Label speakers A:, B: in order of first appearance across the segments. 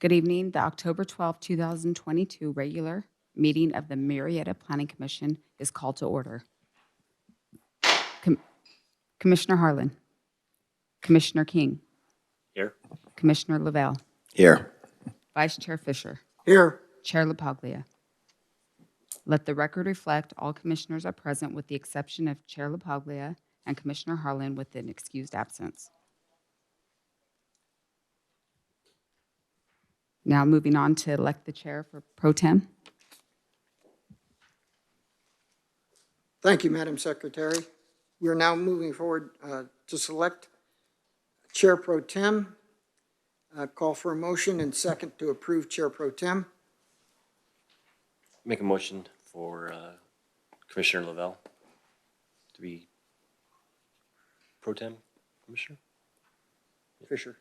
A: Good evening. The October twelfth, two 2022 regular meeting of the Marietta Planning Commission is called to order. Com- Commissioner Harlan. Commissioner King.
B: Here.
A: Commissioner Lavelle.
C: Here.
A: Vice Chair Fisher.
C: Here.
A: Chair LaPaglia. Let the record reflect all commissioners are present with the exception of Chair LaPaglia and Commissioner Harlan with an excused absence. Now moving on to elect the chair for pro tem.
D: Thank you, Madam Secretary. We are now moving forward uh, to select Chair Pro Tem. Uh, Call for a motion and second to approve Chair Pro Tem.
B: Make a motion for uh, Commissioner Lavelle to be pro tem commissioner?
D: Fisher,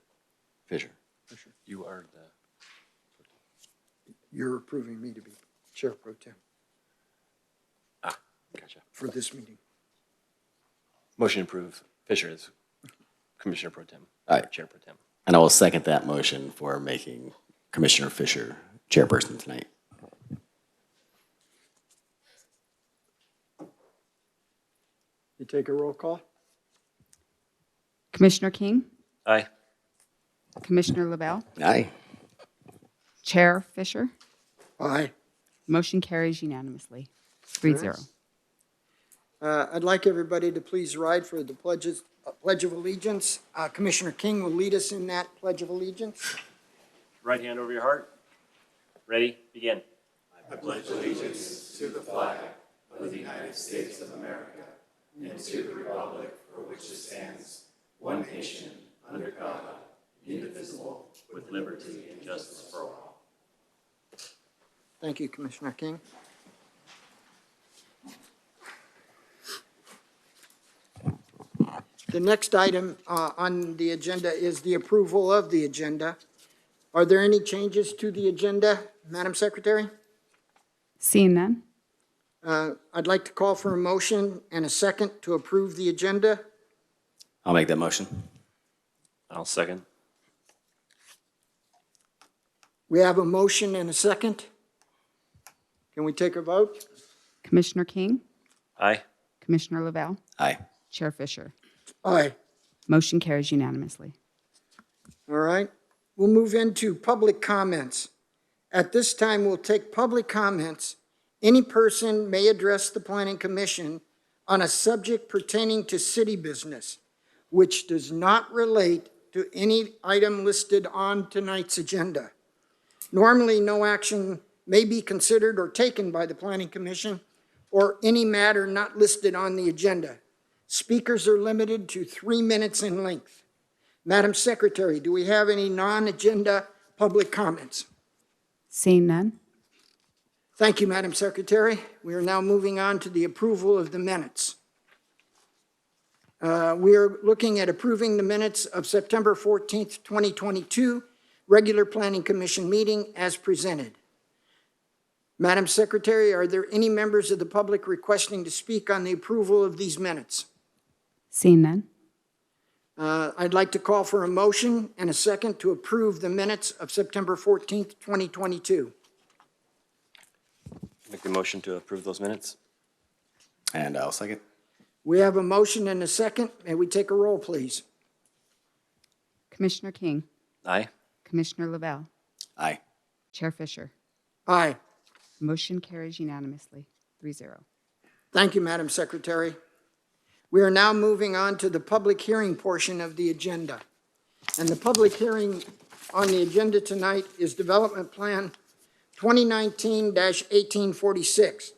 C: Fisher.
B: You are the,
D: you're approving me to be Chair Pro Tem
B: ah, gotcha.
D: for this meeting.
B: Motion approved. Fisher is Commissioner pro tem.
C: Aye.
B: Chair pro tem.
C: And I will second that motion for making Commissioner Fisher chairperson tonight.
D: You take a roll call?
A: Commissioner King,
B: Aye.
A: Commissioner Lavelle,
C: Aye.
A: Chair Fisher.
D: Aye.
A: Motion carries unanimously, three zero.
D: Uh, I'd like everybody to please ride for the pledges, uh, Pledge of Allegiance. Uh, Commissioner King will lead us in that Pledge of Allegiance.
B: Right hand over your heart. Ready, begin.
D: Thank you, Commissioner King. The next item uh, on the agenda is the approval of the agenda. Are there any changes to the agenda, Madam Secretary?
A: Seeing none,
D: Uh, I'd like to call for a motion and a second to approve the agenda.
C: I'll make that motion.
B: I'll second.
D: We have a motion and a second. Can we take a vote?
A: Commissioner King,
B: Aye.
A: Commissioner Lavelle,
C: Aye.
A: Chair Fisher.
D: Aye.
A: Motion carries unanimously.
D: All right, we'll move into public comments. At this time, we'll take public comments. Any person may address the planning commission on a subject pertaining to city business, which does not relate to any item listed on tonight's agenda. Normally, no action may be considered or taken by the planning commission or any matter not listed on the agenda. Speakers are limited to three minutes in length. Madam Secretary, do we have any non-agenda public comments?
A: Seeing none,
D: Thank you, Madam Secretary. We are now moving on to the approval of the minutes. Uh, We are looking at approving the minutes of September 14th, 2022, regular Planning Commission meeting as presented. Madam Secretary, are there any members of the public requesting to speak on the approval of these minutes?
A: seeing none,
D: Uh, I'd like to call for a motion and a second to approve the minutes of September 14th, 2022.
B: Make the motion to approve those minutes.
C: And I'll second.
D: We have a motion and a second. May we take a roll, please?
A: Commissioner King,
B: Aye.
A: Commissioner Lavelle,
C: Aye.
A: Chair Fisher.
D: Aye.
A: Motion carries unanimously, three zero.
D: Thank you, Madam Secretary. We are now moving on to the public hearing portion of the agenda. And the public hearing on the agenda tonight is Development Plan 2019-1846,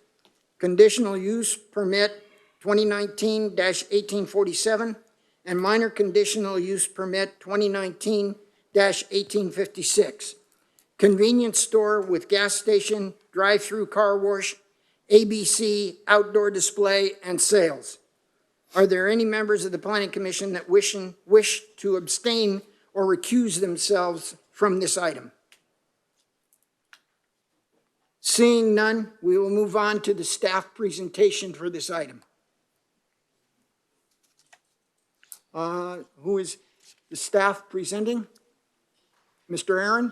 D: Conditional Use Permit 2019-1847, and Minor Conditional Use Permit 2019-1856. Convenience store with gas station, drive-through car wash, ABC, outdoor display, and sales. Are there any members of the planning commission that wish, wish to abstain or recuse themselves from this item? Seeing none, we will move on to the staff presentation for this item. Uh, Who is the staff presenting? Mr. Aaron?